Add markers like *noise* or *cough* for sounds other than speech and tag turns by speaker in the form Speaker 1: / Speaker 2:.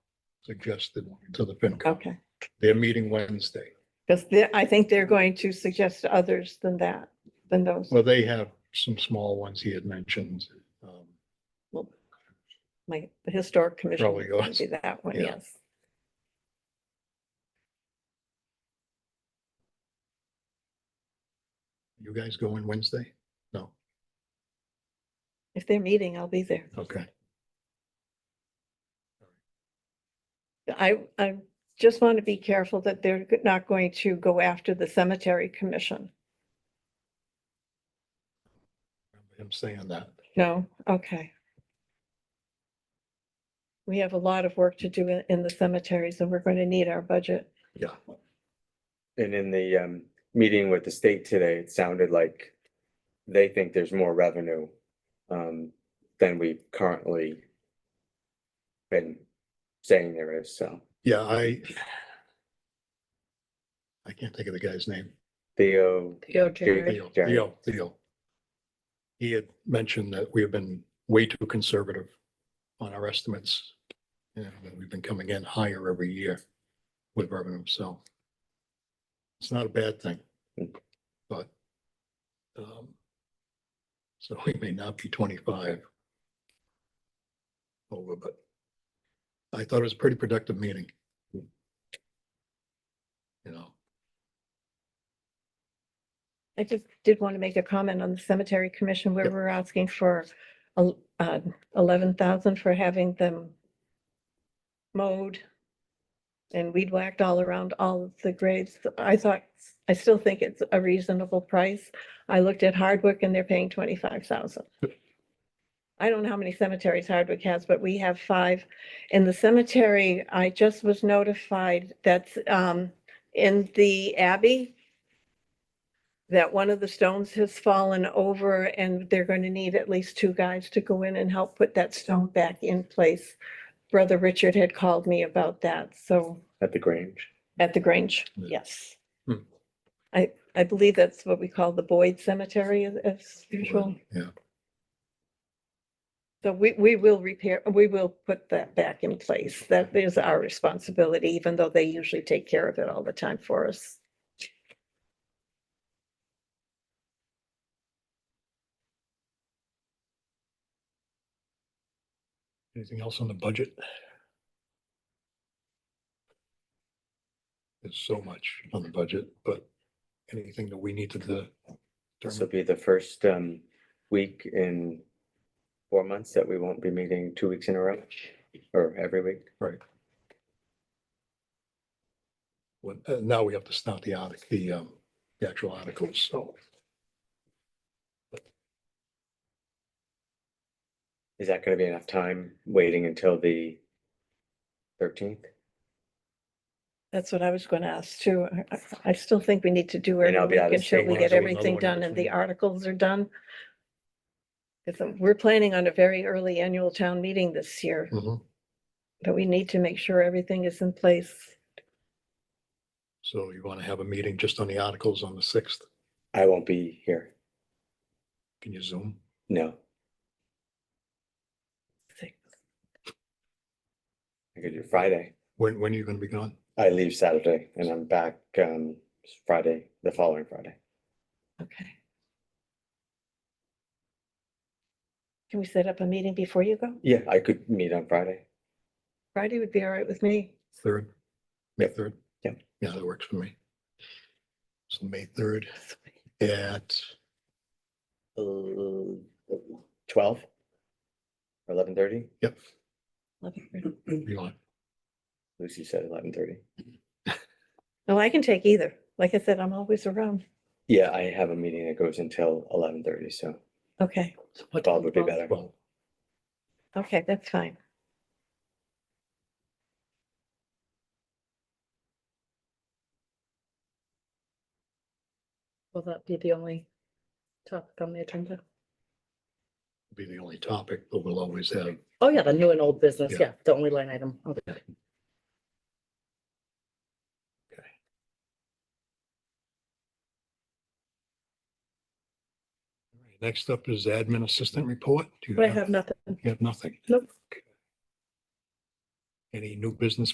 Speaker 1: suggested to the FinCom.
Speaker 2: Okay,
Speaker 1: They're meeting Wednesday.
Speaker 2: because I think they're going to suggest others than that, than those
Speaker 1: Well, they have some small ones he had mentioned. um,
Speaker 2: my the historic commission.
Speaker 1: Probably
Speaker 2: is gonna
Speaker 1: yours.
Speaker 2: be That one,
Speaker 1: Yeah.
Speaker 2: yes.
Speaker 1: You guys going Wednesday? No,
Speaker 2: If they're meeting, I'll be there.
Speaker 1: okay.
Speaker 2: I, I just want to be careful that they're not going to go after the cemetery commission.
Speaker 1: I'm saying that.
Speaker 2: No, okay. We have a lot of work to do in- in the cemeteries and we're going to need our budget.
Speaker 1: Yeah.
Speaker 3: And in the um meeting with the state today, it sounded like they think there's more revenue um than we currently been saying there is, so
Speaker 1: Yeah, I I can't think of the guy's name.
Speaker 3: Theo.
Speaker 1: Theo,
Speaker 3: Jerry.
Speaker 1: Theo, Theo. He had mentioned that we have been way too conservative on our estimates. You know, that we've been coming in higher every year with revenue, so. It's not a bad thing, but. um, So we may not be twenty-five. Over, but I thought it was a pretty productive meeting. You know,
Speaker 2: I just did want to make a comment on the cemetery commission where
Speaker 1: Yep.
Speaker 2: we're asking for uh, eleven thousand for having them mowed and weed whacked all around all of the graves. I thought, I still think it's a reasonable price. I looked at Hardwick and they're paying twenty-five thousand. I don't know how many cemeteries Hardwick has, but we have five. In the cemetery, I just was notified that's um, in the Abbey that one of the stones has fallen over and they're going to need at least two guys to go in and help put that stone back in place. Brother Richard had called me about that, so
Speaker 3: At the Grange.
Speaker 2: at the Grange,
Speaker 1: Yeah.
Speaker 2: yes.
Speaker 1: Hmm.
Speaker 2: I, I believe that's what we call the Boyd Cemetery as- as usual.
Speaker 1: yeah.
Speaker 2: So we, we will repair, we will put that back in place. That is our responsibility, even though they usually take care of it all the time for us.
Speaker 1: Anything else on the budget? There's so much on the budget, but anything that we need to the.
Speaker 3: This will be the first um week in four months that we won't be meeting two weeks in a row or every week.
Speaker 1: uh, Now we have to start the article, the um, the actual articles, so.
Speaker 3: Is that gonna be enough time waiting until the thirteenth?
Speaker 2: That's what I was going to ask too. I- I- I still think we need to do every
Speaker 3: And I'll be
Speaker 2: week
Speaker 3: out of
Speaker 2: until
Speaker 3: state
Speaker 2: we
Speaker 1: when I
Speaker 2: get
Speaker 1: do another
Speaker 2: everything
Speaker 1: one
Speaker 2: done
Speaker 1: next
Speaker 2: and the
Speaker 1: week.
Speaker 2: articles are done. Because we're planning on a very early annual town meeting this year,
Speaker 1: mhm.
Speaker 2: but we need to make sure everything is in place.
Speaker 1: So you want to have a meeting just on the articles on the sixth?
Speaker 3: I won't be here,
Speaker 1: Can you zoom?
Speaker 3: no. I could do Friday.
Speaker 1: When, when are you going to be gone?
Speaker 3: I leave Saturday and I'm back um Friday, the following Friday.
Speaker 2: Okay. Can we set up a meeting before you go?
Speaker 3: Yeah, I could meet on Friday.
Speaker 2: Friday would be all right with me. *laughs*
Speaker 1: Third? May
Speaker 3: Yep.
Speaker 1: third?
Speaker 3: Yep.
Speaker 1: Yeah, that works for me. So May third at,
Speaker 3: Uh, Twelve? Eleven thirty?
Speaker 1: yep,
Speaker 2: Eleven thirty.
Speaker 1: you want,
Speaker 3: Lucy said eleven thirty.
Speaker 2: No, I can take either. Like I said, I'm always around.
Speaker 3: Yeah, I have a meeting that goes until eleven thirty, so
Speaker 2: Okay,
Speaker 3: twelve would be better.
Speaker 1: well,
Speaker 2: okay, that's fine.
Speaker 4: Will that be the only topic on the agenda?
Speaker 1: be the only topic, but we'll always have
Speaker 4: Oh, yeah, the new and old business,
Speaker 1: Yeah.
Speaker 4: yeah, the only line item. Okay.
Speaker 1: Next up is admin assistant report. Do you
Speaker 4: I have nothing.
Speaker 1: You have nothing?
Speaker 4: Nope.
Speaker 1: Any new business